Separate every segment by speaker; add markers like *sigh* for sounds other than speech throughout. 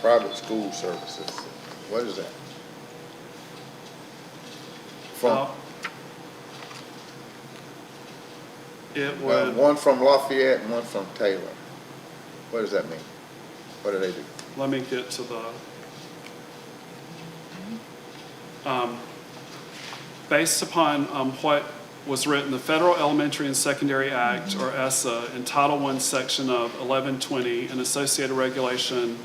Speaker 1: private school services. What is that? From,
Speaker 2: Well,
Speaker 1: uh,
Speaker 2: It
Speaker 1: uh,
Speaker 2: would,
Speaker 1: one from Lafayette and one from Taylor. What does that mean? What do they do?
Speaker 2: let me get to the. Um, Based upon um, what was written, the Federal Elementary and Secondary Act, or ESSA, in Title I, Section of 1120, and associated regulation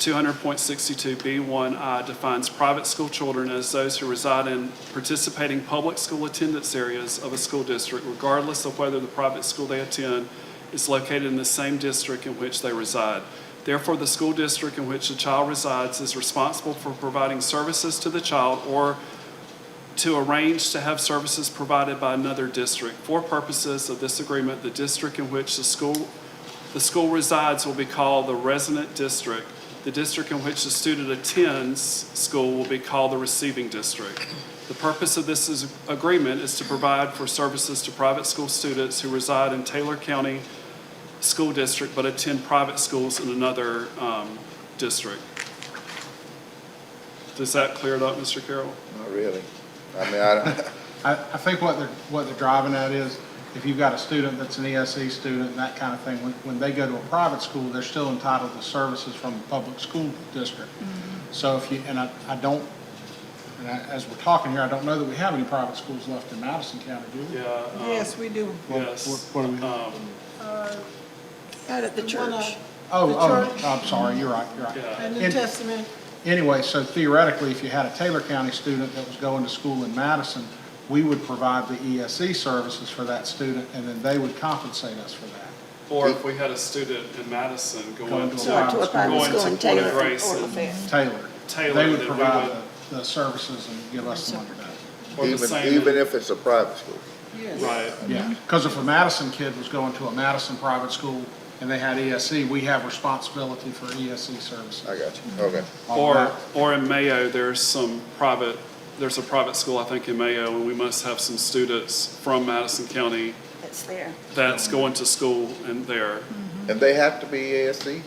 Speaker 2: 200.62B1I defines private school children as those who reside in participating public school attendance areas of a school district, regardless of whether the private school they attend is located in the same district in which they reside. Therefore, the school district in which the child resides is responsible for providing services to the child or to arrange to have services provided by another district. For purposes of this agreement, the district in which the school the school resides will be called the resident district. The district in which the student attends school will be called the receiving district. The purpose of this is- agreement is to provide for services to private school students who reside in Taylor County School District but attend private schools in another um, district. Does that clear it up, Mr. Carroll?
Speaker 1: Not really. I mean, I
Speaker 2: *laughs*
Speaker 1: don't,
Speaker 3: I, I think what they're, what they're driving at is, if you've got a student that's an ESE student and that kind of thing, when, when they go to a private school, they're still entitled to services from the public school district.
Speaker 4: Mm-hmm.
Speaker 3: So if you, and I, I don't, and I, as we're talking here, I don't know that we have any private schools left in Madison County, do we?
Speaker 2: Yeah. um,
Speaker 4: Yes, we do.
Speaker 3: What-
Speaker 2: Yes.
Speaker 3: what- what do we-
Speaker 2: Um,
Speaker 4: Out at the
Speaker 5: church.
Speaker 4: church.
Speaker 3: Oh,
Speaker 4: the church.
Speaker 3: oh, I'm sorry, you're right, you're right.
Speaker 2: Yeah.
Speaker 4: And New
Speaker 3: And-
Speaker 4: Testament,
Speaker 3: Anyway, so theoretically, if you had a Taylor County student that was going to school in Madison, we would provide the ESE services for that student, and then they would compensate us for that.
Speaker 2: Or if we had a student in Madison going
Speaker 3: Going
Speaker 2: to
Speaker 3: to
Speaker 5: So to a private
Speaker 2: Going
Speaker 5: school
Speaker 2: to
Speaker 5: in
Speaker 2: Port of
Speaker 5: Taylor or
Speaker 2: Grace and-
Speaker 5: Lafayette.
Speaker 3: Taylor.
Speaker 2: Taylor,
Speaker 3: They
Speaker 2: that
Speaker 3: would
Speaker 2: we
Speaker 3: provide
Speaker 2: would-
Speaker 3: the- the services and give us the money back.
Speaker 2: or the
Speaker 1: even,
Speaker 2: same.
Speaker 1: even if it's a private school.
Speaker 4: yes.
Speaker 2: Right.
Speaker 3: Yeah, because if a Madison kid was going to a Madison private school and they had ESE, we have responsibility for ESE services.
Speaker 1: I got
Speaker 2: Mm-hmm.
Speaker 1: you. Okay.
Speaker 3: on
Speaker 2: Or,
Speaker 3: that.
Speaker 2: or in Mayo, there's some private, there's a private school, I think, in Mayo, and we must have some students from Madison County
Speaker 5: It's there.
Speaker 2: that's going to school in there.
Speaker 1: And they have to be ESC?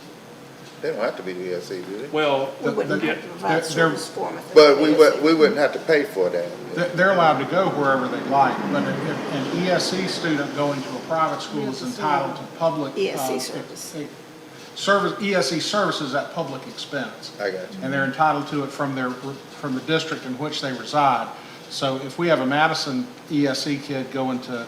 Speaker 1: They don't have to be ESC, do they?
Speaker 2: Well,
Speaker 5: We wouldn't
Speaker 3: the-
Speaker 5: have to provide
Speaker 3: they're-
Speaker 5: service for them. if they
Speaker 1: But
Speaker 5: were
Speaker 1: we
Speaker 5: busy.
Speaker 1: would, we wouldn't have to pay for that.
Speaker 3: They- They're allowed to go wherever they like, but if if an ESE student going to a private school is entitled to public. uh,
Speaker 5: ESE
Speaker 3: ex-
Speaker 5: service.
Speaker 3: ex- Service, ESE services at public expense.
Speaker 1: I got you.
Speaker 3: and they're entitled to it from their, from the district in which they reside. So if we have a Madison ESE kid going to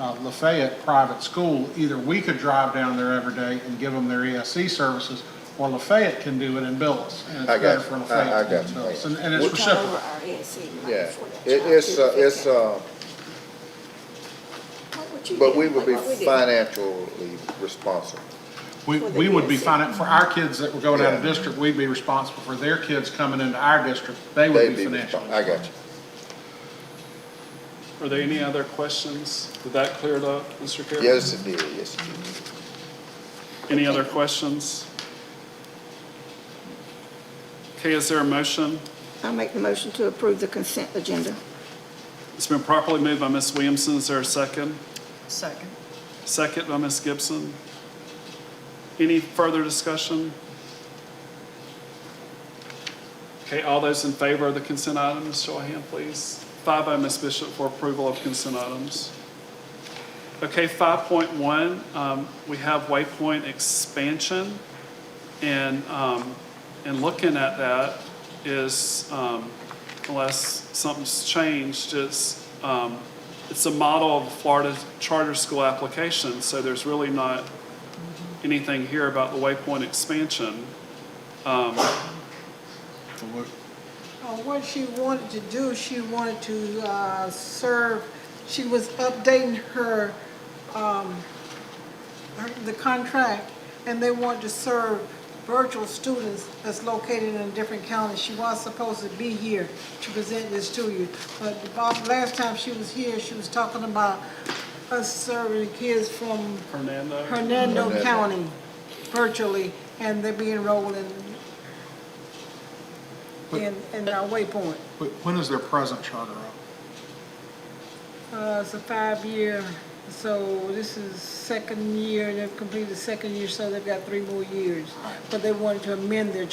Speaker 3: uh, Lafayette Private School, either we could drive down there every day and give them their ESE services, or Lafayette can do it and bill us. And
Speaker 1: I got
Speaker 3: it's better
Speaker 1: you.
Speaker 3: for
Speaker 1: I- I
Speaker 3: Lafayette
Speaker 1: got
Speaker 3: to
Speaker 1: you.
Speaker 3: bill us. And and
Speaker 5: We
Speaker 3: it's
Speaker 5: turn
Speaker 3: reciprocal.
Speaker 5: over our ESC money
Speaker 1: Yeah,
Speaker 5: for that
Speaker 1: it,
Speaker 5: child
Speaker 1: it's,
Speaker 5: to
Speaker 1: uh,
Speaker 5: the
Speaker 1: it's,
Speaker 5: family.
Speaker 1: uh,
Speaker 5: What would you
Speaker 1: but
Speaker 5: do?
Speaker 1: we would be
Speaker 5: What would we do?
Speaker 1: financially responsible.
Speaker 3: We,
Speaker 5: for the
Speaker 3: we
Speaker 5: E
Speaker 3: would be
Speaker 5: ESE.
Speaker 3: finan, for our kids that were going out of
Speaker 1: Yeah.
Speaker 3: district, we'd be responsible for their kids coming into our district. They
Speaker 1: They'd
Speaker 3: would be
Speaker 1: be
Speaker 3: financially.
Speaker 1: responsible. I got you.
Speaker 2: are there any other questions? Did that clear it up, Mr. Carroll?
Speaker 1: Yes, it did, yes, it did.
Speaker 2: Any other questions? Okay, is there a motion?
Speaker 5: I make the motion to approve the consent agenda.
Speaker 2: It's been properly moved by Ms. Williamson. Is there a second?
Speaker 4: Second.
Speaker 2: Second by Ms. Gibson. Any further discussion? Okay, all those in favor of the consent items, show of hand, please. Five by Ms. Bishop for approval of consent items. Okay, 5.1, um, we have Waypoint expansion. And, um, and looking at that is, um, unless something's changed, it's, um, it's a model of Florida charter school application, so there's really not anything here about the Waypoint expansion.
Speaker 4: Uh, What she wanted to do, she wanted to uh, serve, she was updating her, um, her- the contract, and they wanted to serve virtual students that's located in different counties. She was supposed to be here to present this to you, but the bo- last time she was here, she was talking about us serving kids from
Speaker 2: Hernando?
Speaker 4: Hernando
Speaker 1: Hernando.
Speaker 4: County virtually, and they're being enrolled in, in, in our waypoint.
Speaker 3: Wh- When is their present charter up?
Speaker 4: Uh, it's a five-year, so this is second year, they've completed the second year, so they've got three more years. But they wanted to amend their